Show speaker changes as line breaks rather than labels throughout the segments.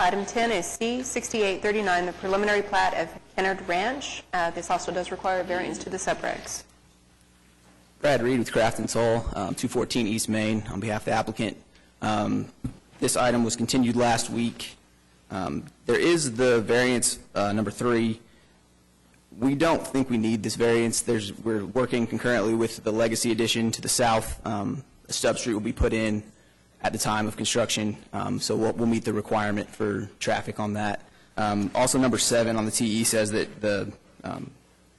Item 10 is C-6839, the preliminary plat of Kennard Ranch. Uh, This also does require a variance to the subregs.
Brad Reed with Craft and Toll, um, 214 East Main, on behalf of the applicant. Um, This item was continued last week. Um, There is the variance uh, number three. We don't think we need this variance. There's, we're working concurrently with the legacy addition to the south. Um, A substreet will be put in at the time of construction, um, so we'll, we'll meet the requirement for traffic on that. Um, Also, number seven on the TE says that the um,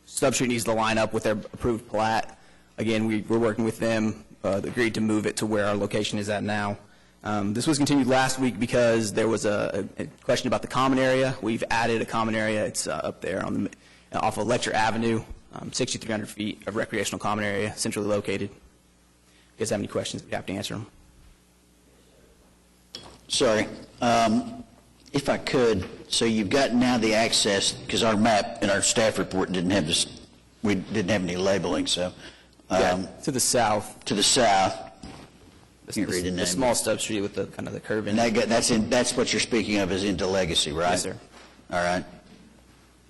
Substreet needs to line up with their approved plat. Again, we, we're working with them, uh, agreed to move it to where our location is at now. Um, this was continued last week because there was a, a question about the common area. We've added a common area. It's, uh, up there on the, off of Lecture Avenue, um, 6,300 feet of recreational common area, centrally located. If you guys have any questions, we have to answer them.
Sorry, um, if I could, so you've got now the access, because our map in our staff report didn't have this, we didn't have any labeling, so, um,
To the south.
to the south,
the-
Can't read the
The
name.
small substreet with the, kind of the curve in
and
it.
that, got- that's in, that's what you're speaking of is into Legacy, right?
Yes, sir.
All right.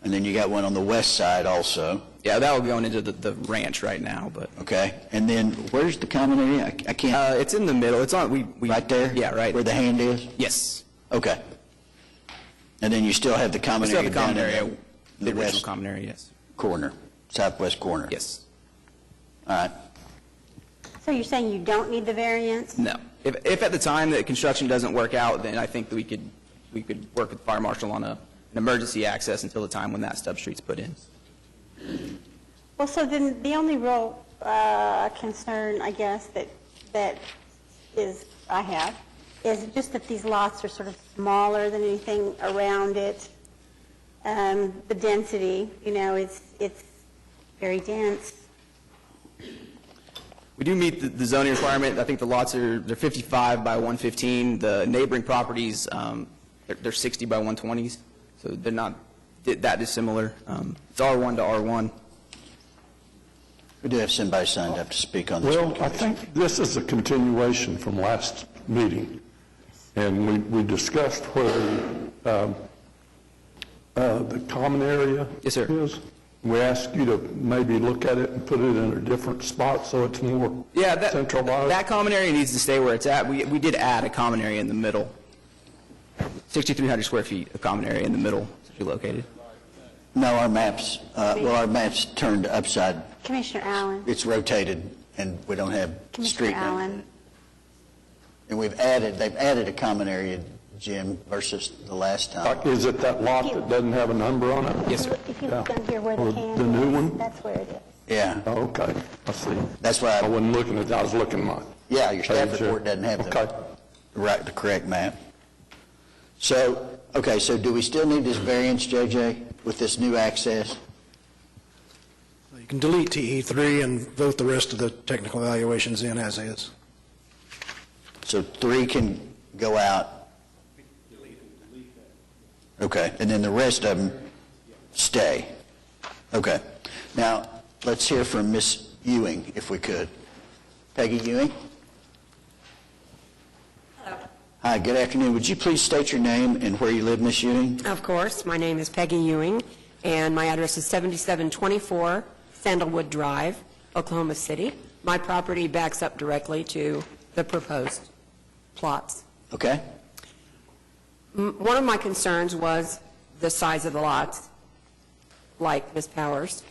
And then you got one on the west side also,
Yeah, that will be going into the, the ranch right now, but.
okay? And then where's the common area? I- I can't,
Uh, it's in the middle. It's on, we, we.
right there?
Yeah, right.
Where the hand is?
Yes.
Okay. And then you still have the
We
common
still
area
have the common
down in
area,
the-
the
The
original
west
common area, yes.
corner, southwest corner?
Yes.
All right.
So you're saying you don't need the variance?
No. If, if at the time that construction doesn't work out, then I think that we could, we could work with fire marshal on a, an emergency access until the time when that substreet's put in.
Well, so then the only real uh, concern, I guess, that, that is, I have, is just that these lots are sort of smaller than anything around it. Um, The density, you know, it's, it's very dense.
We do meet the- the zoning requirement. I think the lots are, they're 55 by 115. The neighboring properties, um, they're they're 60 by 120s, so they're not di- that dissimilar. Um, It's R1 to R1.
We do have somebody signed up to speak on this.
Well, uh, I think this is a continuation from last meeting, and we we discussed where um, uh, the common area
Yes, sir.
is. We asked you to maybe look at it and put it in a different spot so it's more
Yeah, that,
centralized.
that common area needs to stay where it's at. We, we did add a common area in the middle, 6,300 square feet of common area in the middle, to be located.
No, our maps, uh, well, our map's turned upside,
Commissioner Allen,
it's rotated, and we don't have street
Commissioner
name.
Allen,
And we've added, they've added a common area, Jim, versus the last time.
Like, Is it that lot that doesn't have a number on it?
Yes, sir.
if you look down here where
Or
the hand
the new
is,
one?
that's where it is.
Yeah,
Oh, Okay, I see.
that's why,
I
I-
wasn't looking at, that. I was looking at mine.
yeah, your staff
Page, uh,
report doesn't have
Okay.
the right, the correct map. So, okay, so do we still need this variance, JJ, with this new access?
You can delete TE3 and vote the rest of the technical evaluations in as is.
So three can go out? Okay, and then the rest of them stay? Okay. Now, let's hear from Ms. Ewing, if we could. Peggy Ewing? Hi, good afternoon. Would you please state your name and where you live, Ms. Ewing?
Of course, my name is Peggy Ewing, and my address is 7724 Sandalwood Drive, Oklahoma City. My property backs up directly to the proposed plots.
Okay?
M- One of my concerns was the size of the lots, like Ms. Powers.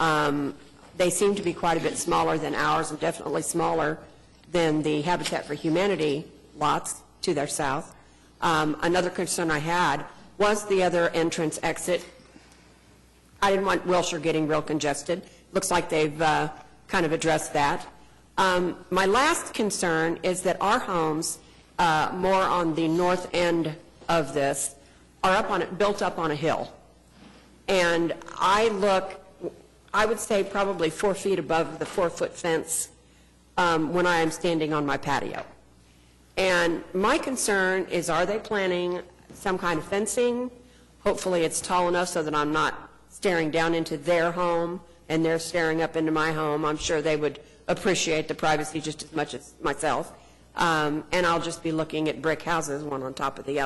Um, They seem to be quite a bit smaller than ours, and definitely smaller than the Habitat for Humanity lots to their south. Um, Another concern I had was the other entrance exit. I didn't want Wilshire getting real congested. Looks like they've uh, kind of addressed that. Um, My last concern is that our homes, uh, more on the north end of this, are up on, built up on a hill. And I look, I would say probably four feet above the four-foot fence um, when I am standing on my patio. And my concern is, are they planning some kind of fencing? Hopefully, it's tall enough so that I'm not staring down into their home and they're staring up into my home. I'm sure they would appreciate the privacy just as much as myself. Um, And I'll just be looking at brick houses, one on top of the other.